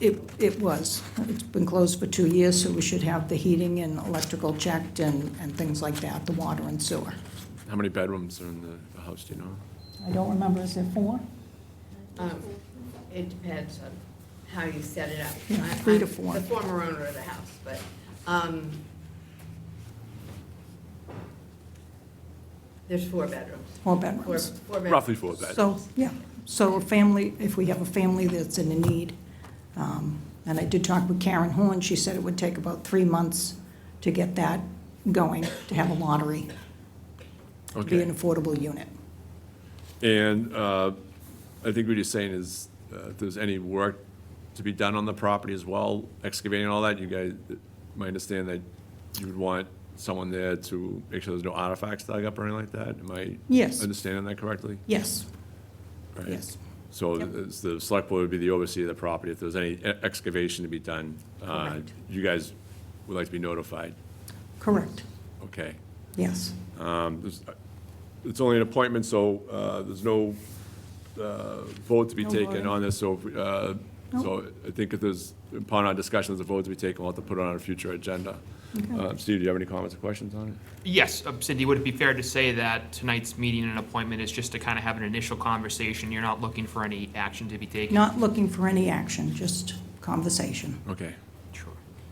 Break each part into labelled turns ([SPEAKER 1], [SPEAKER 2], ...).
[SPEAKER 1] It, it was. It's been closed for two years, so we should have the heating and electrical checked and, and things like that, the water and sewer.
[SPEAKER 2] How many bedrooms are in the- the house, do you know?
[SPEAKER 1] I don't remember, is there four?
[SPEAKER 3] Um, It depends on how you set it up.
[SPEAKER 1] Yeah,
[SPEAKER 3] I-
[SPEAKER 1] three to
[SPEAKER 3] I'm
[SPEAKER 1] four.
[SPEAKER 3] The former owner of the house, but, um, there's four bedrooms.
[SPEAKER 1] Four
[SPEAKER 3] Four,
[SPEAKER 1] bedrooms.
[SPEAKER 3] four bedrooms.
[SPEAKER 2] Roughly four bedrooms.
[SPEAKER 1] So, yeah, so a family, if we have a family that's in need, um, and I did talk with Karen Horn, she said it would take about three months to get that going, to have a lottery, to be an
[SPEAKER 2] Okay,
[SPEAKER 1] affordable unit.
[SPEAKER 2] and uh, I think what you're saying is, uh, if there's any work to be done on the property as well, excavating and all that, you guys, my understand that you would want someone there to make sure there's no artifacts dug up or anything like that? Am I
[SPEAKER 1] Yes.
[SPEAKER 2] understanding that correctly?
[SPEAKER 1] Yes,
[SPEAKER 2] Right.
[SPEAKER 1] yes.
[SPEAKER 2] So
[SPEAKER 1] Yep.
[SPEAKER 2] it's the select board would be the overseer of the property. If there's any e- excavation to be done, uh,
[SPEAKER 1] Correct.
[SPEAKER 2] you guys would like to be notified.
[SPEAKER 1] Correct,
[SPEAKER 2] Okay.
[SPEAKER 1] yes.
[SPEAKER 2] Um, there's- It's only an appointment, so uh, there's no uh, vote to be
[SPEAKER 1] No
[SPEAKER 2] taken
[SPEAKER 1] voting.
[SPEAKER 2] on this. So, if, uh,
[SPEAKER 1] No.
[SPEAKER 2] so I think if there's, upon our discussion, there's a vote to be taken, we'll have to put it on a future agenda. Uh, Steve, do you have any comments or questions on it?
[SPEAKER 4] Yes, uh, Cindy, would it be fair to say that tonight's meeting and appointment is just to kind of have an initial conversation? You're not looking for any action to be taken?
[SPEAKER 1] Not looking for any action, just conversation.
[SPEAKER 2] Okay.
[SPEAKER 4] Sure.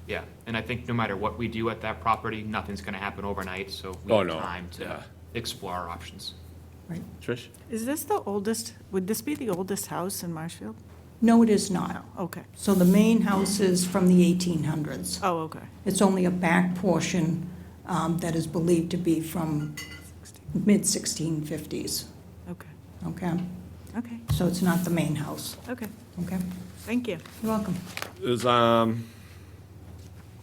[SPEAKER 4] Yeah, and I think no matter what we do at that property, nothing's going to happen overnight, so we
[SPEAKER 2] Oh,
[SPEAKER 4] have
[SPEAKER 2] no,
[SPEAKER 4] time
[SPEAKER 2] yeah.
[SPEAKER 4] to explore our options.
[SPEAKER 1] Right.
[SPEAKER 2] Trish?
[SPEAKER 5] Is this the oldest, would this be the oldest house in Marshfield?
[SPEAKER 1] No, it is not.
[SPEAKER 5] Okay.
[SPEAKER 1] So the main house is from the 1800s.
[SPEAKER 5] Oh, okay.
[SPEAKER 1] It's only a back portion um, that is believed to be from mid-1650s,
[SPEAKER 5] Okay,
[SPEAKER 1] okay?
[SPEAKER 5] okay,
[SPEAKER 1] So it's not the main house,
[SPEAKER 5] okay.
[SPEAKER 1] okay?
[SPEAKER 5] Thank you.
[SPEAKER 1] You're welcome.
[SPEAKER 2] Is, um,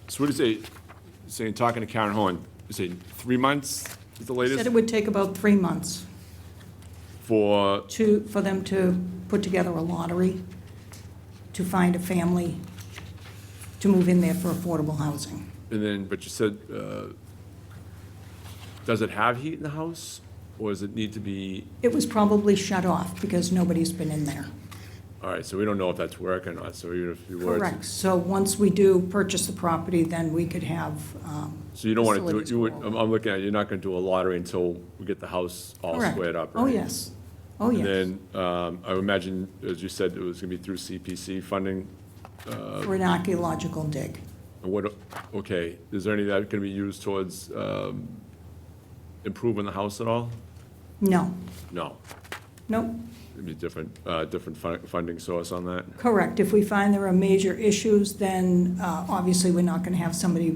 [SPEAKER 2] so what do you say, saying, talking to Karen Horn, you say three months is the
[SPEAKER 1] Said
[SPEAKER 2] latest
[SPEAKER 1] it would take about three months
[SPEAKER 2] for,
[SPEAKER 1] to, for them to put together a lottery, to find a family, to move in there for affordable housing.
[SPEAKER 2] and then, but you said, uh, does it have heat in the house? Or does it need to be,
[SPEAKER 1] It was probably shut off because nobody's been in there.
[SPEAKER 2] all right, so we don't know if that's work or not, so even if you were. to-
[SPEAKER 1] Correct. So once we do purchase the property, then we could have, um,
[SPEAKER 2] So you don't want to do, it.
[SPEAKER 1] Facilities
[SPEAKER 2] you would, um,
[SPEAKER 1] go
[SPEAKER 2] I'm, I'm looking at, it, you're not going to do a lottery until we get the house all
[SPEAKER 1] correct.
[SPEAKER 2] squared up, right?
[SPEAKER 1] Oh, yes. Oh, yes.
[SPEAKER 2] And then, um, I would imagine, as you said, it was going to be through CPC funding, uh,
[SPEAKER 1] for an archaeological dig.
[SPEAKER 2] And What, okay, is there any of that gonna be used towards um, improving the house at all?
[SPEAKER 1] No,
[SPEAKER 2] No,
[SPEAKER 1] no,
[SPEAKER 2] it'd be different, uh, different fun- funding source on that.
[SPEAKER 1] correct. If we find there are major issues, then uh, obviously we're not going to have somebody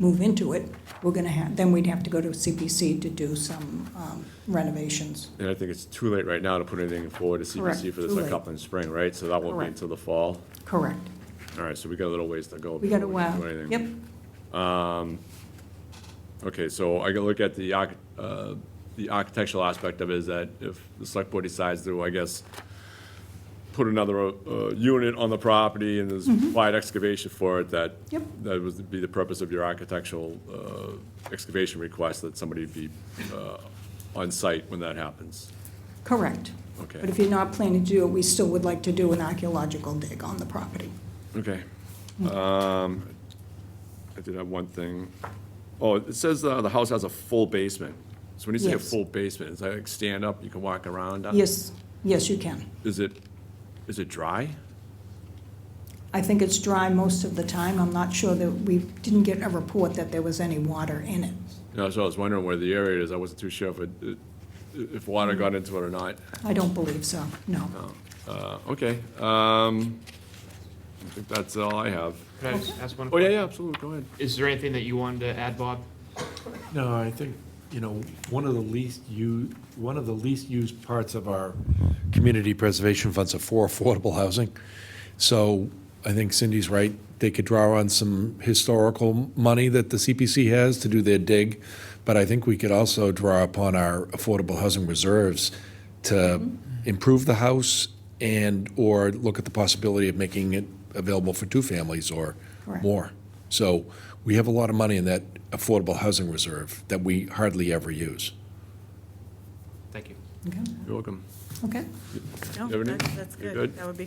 [SPEAKER 1] move into it. We're going to have, then we'd have to go to CPC to do some um, renovations.
[SPEAKER 2] And I think it's too late right now to put anything forward to CPC
[SPEAKER 1] Correct,
[SPEAKER 2] for this
[SPEAKER 1] too
[SPEAKER 2] like
[SPEAKER 1] late.
[SPEAKER 2] up in spring, right? So that won't be
[SPEAKER 1] Correct.
[SPEAKER 2] until the fall.
[SPEAKER 1] Correct.
[SPEAKER 2] All right, so we got a little ways to go.
[SPEAKER 1] We got a
[SPEAKER 2] before can
[SPEAKER 1] while.
[SPEAKER 2] do anything.
[SPEAKER 1] Yep,
[SPEAKER 2] Okay, so I can look at the, arch- uh, the architectural aspect of it is that if the select board decides to, I guess, put another uh, unit on the property and there's wide excavation for it, that
[SPEAKER 1] Mm-hmm. Yep.
[SPEAKER 2] that would be the purpose of your architectural uh, excavation request, that somebody be uh, on site when that happens.
[SPEAKER 1] correct.
[SPEAKER 2] Okay.
[SPEAKER 1] But if you're not planning to do it, we still would like to do an archaeological dig on the property.
[SPEAKER 2] Okay.
[SPEAKER 1] Mm-hmm.
[SPEAKER 2] Um, I did have one thing. Oh, it says uh, the house has a full basement. So when you say a
[SPEAKER 1] Yes.
[SPEAKER 2] full basement, is that like stand up, you can walk around? on it?
[SPEAKER 1] Yes, yes, you can.
[SPEAKER 2] Is it, is it dry?
[SPEAKER 1] I think it's dry most of the time. I'm not sure that, we didn't get a report that there was any water in it.
[SPEAKER 2] No, so I was wondering where the area is. I wasn't too sure if it, if water got into it or not.
[SPEAKER 1] I don't believe so, no.
[SPEAKER 2] Uh, okay, um, I think that's all I have.
[SPEAKER 4] Could I just ask one?
[SPEAKER 2] Oh, yeah,
[SPEAKER 4] question?
[SPEAKER 2] yeah, absolutely, go ahead.
[SPEAKER 4] Is there anything that you wanted to add, Bob?
[SPEAKER 6] No, I think, you know, one of the least u, one of the least used parts of our community preservation funds are for affordable housing. So I think Cindy's right, they could draw on some historical money that the CPC has to do their dig, but I think we could also draw upon our affordable housing reserves to improve the house and/or look at the possibility of making it available for two families or
[SPEAKER 1] Correct.
[SPEAKER 6] more. So we have a lot of money in that affordable housing reserve that we hardly ever use.
[SPEAKER 4] Thank you.
[SPEAKER 1] Okay.
[SPEAKER 2] You're welcome.
[SPEAKER 1] Okay.
[SPEAKER 5] No,
[SPEAKER 2] You have any?
[SPEAKER 5] that's- that's
[SPEAKER 2] You good?
[SPEAKER 5] good. That would be